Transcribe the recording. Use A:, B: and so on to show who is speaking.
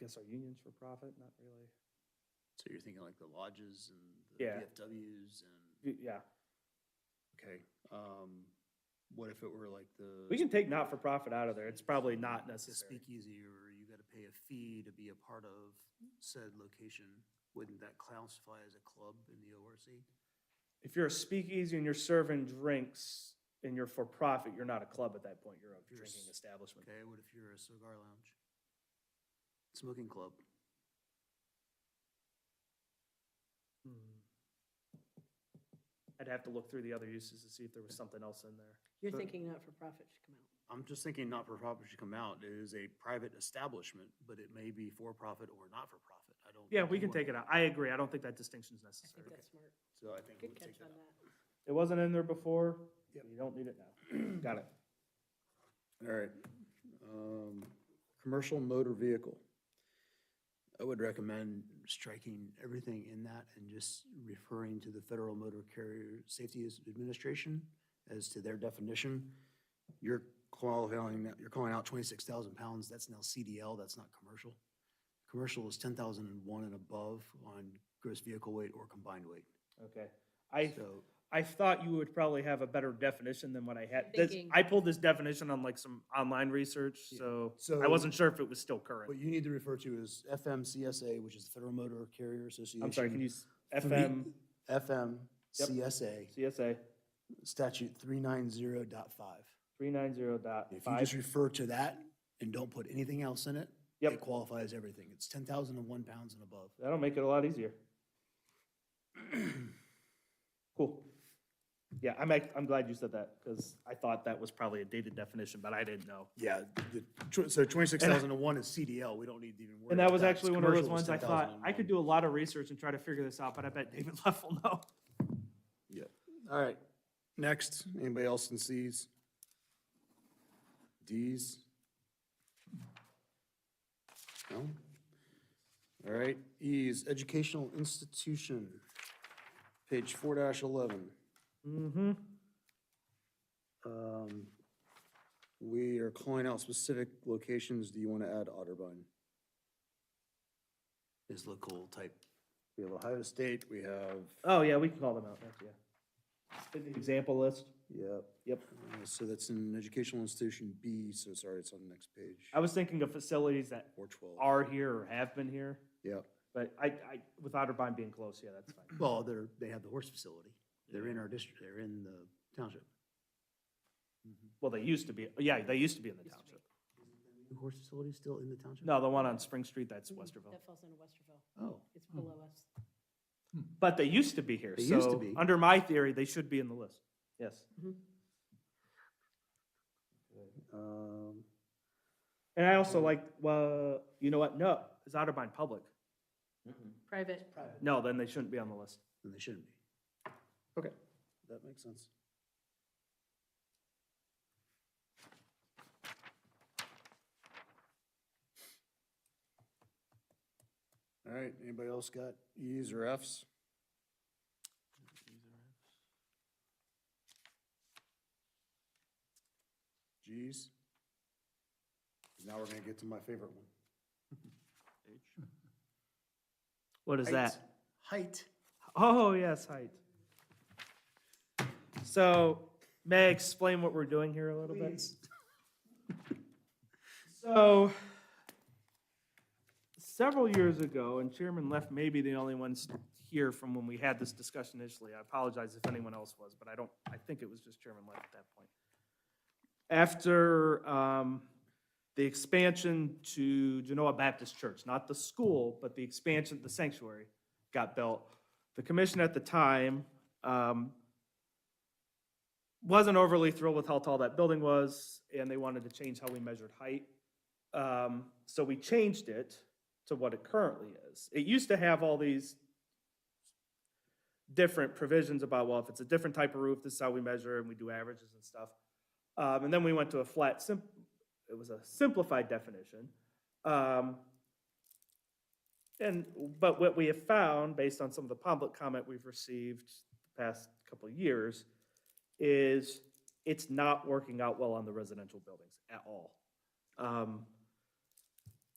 A: guess our unions for profit, not really.
B: So you're thinking like the lodges and the
A: Yeah.
B: VFWs and,
A: Y- Yeah,
B: okay. Um, what if it were like the?
A: we can take not for profit out of there. It's probably not
B: the
A: necessary.
B: Speakeasy or you gotta pay a fee to be a part of said location. Wouldn't that classify as a club in the ORC?
A: If you're a speakeasy and you're serving drinks and you're for profit, you're not a club at that point. You're a
B: You're
A: drinking
B: s-
A: establishment.
B: Okay, what if you're a cigar lounge? Smoking club.
A: Hmm. I'd have to look through the other uses to see if there was something else in there.
C: You're
B: But-
C: thinking not-for-profit should come out.
B: I'm just thinking not-for-profit should come out. It is a private establishment, but it may be for-profit or not-for-profit. I don't.
A: Yeah,
B: think
A: we
B: you
A: can
B: want-
A: take it out. I agree. I don't think that distinction is
C: I
A: necessary.
C: think that's smart.
B: So I think we
C: Good
B: would take
C: catch
B: that
C: on
B: out.
C: that.
A: It wasn't in there before.
B: Yep.
A: You don't need it now. Got it.
B: All right. Um, commercial motor vehicle. I would recommend striking everything in that and just referring to the Federal Motor Carrier Safety Administration as to their definition. You're qualifying, you're calling out twenty-six thousand pounds. That's now CDL, that's not commercial. Commercial is ten thousand and one and above on gross vehicle weight or combined weight.
A: Okay. I,
B: So,
A: I thought you would probably have a better definition than what I had. This-
C: Thinking.
A: I pulled this definition on like some online research, so I
B: So-
A: wasn't sure if it was still
B: what
A: current.
B: you need to refer to is FMCSA, which is the Federal Motor Carrier Association.
A: I'm sorry, can you, s-
B: Three-
A: FM,
B: FM,
A: E- Yep.
B: CSA,
A: CSA,
B: statute three nine zero dot five.
A: three nine zero dot
B: If you
A: five.
B: just refer to that and don't put anything else in it, it
A: Yep.
B: qualifies everything. It's ten thousand and one pounds and above.
A: That'll make it a lot easier. Cool. Yeah, I'm, ac- I'm glad you said that, because I thought that was probably a dated definition, but I didn't know.
B: Yeah, the, tw- so twenty-six thousand and one is CDL. We don't need to even worry
A: And that
B: about
A: was
B: It's
A: actually one of those
B: commercial, it's
A: ones I thought, I
B: 10,001.
A: could do a lot of research and try to figure this out, but I bet David Leff will know.
B: All right, next, anybody else in Cs? Ds? No? All right, E's, educational institution, page four dash eleven.
A: Mm-hmm.
B: Um, We are calling out specific locations. Do you want to add Otterbein? Is local type. We have Ohio State, we have,
A: Oh, yeah, we can call them out, that's, yeah. Example list,
B: yep,
A: yep.
B: uh, so that's an educational institution B, so sorry, it's on the next page.
A: I was thinking of facilities that
B: Or twelve.
A: are here or have been here,
B: Yep.
A: but I, I, with Otterbein being close, yeah, that's fine.
B: Well, they're, they have the horse facility. They're in our district, they're in the township.
A: Well, they used to be, yeah, they used to be in the
C: Used to be.
A: township.
B: The horse facility still in the township?
A: No, the one on Spring Street, that's
C: Mhm.
A: Westerville.
C: That falls into Westerville.
B: Oh,
C: It's below us.
A: But they used to be here,
B: They used to
A: so,
B: be.
A: under my theory, they should be in the list, yes.
B: um,
A: And I also like, well, you know what, no, is Otterbein public?
C: Private.
A: No, then they shouldn't be on the list.
B: then they shouldn't be. Okay, that makes sense. All right, anybody else got E's or F's? G's? Now we're gonna get to my favorite one.
A: What is that?
B: Height.
A: Oh, yes, height. So, may I explain what we're doing here a little bit? So, several years ago, and Chairman Left may be the only ones here from when we had this discussion initially. I apologize if anyone else was, but I don't, I think it was just Chairman Left at that point. After um, the expansion to Genoa Baptist Church, not the school, but the expansion, the sanctuary got built, the commission at the time um, wasn't overly thrilled with how tall that building was, and they wanted to change how we measured height. Um, So we changed it to what it currently is. It used to have all these different provisions about, well, if it's a different type of roof, this is how we measure, and we do averages and stuff. Um, And then we went to a flat, sim- it was a simplified definition. Um, and, but what we have found, based on some of the public comment we've received the past couple of years, is it's not working out well on the residential buildings at all. Um,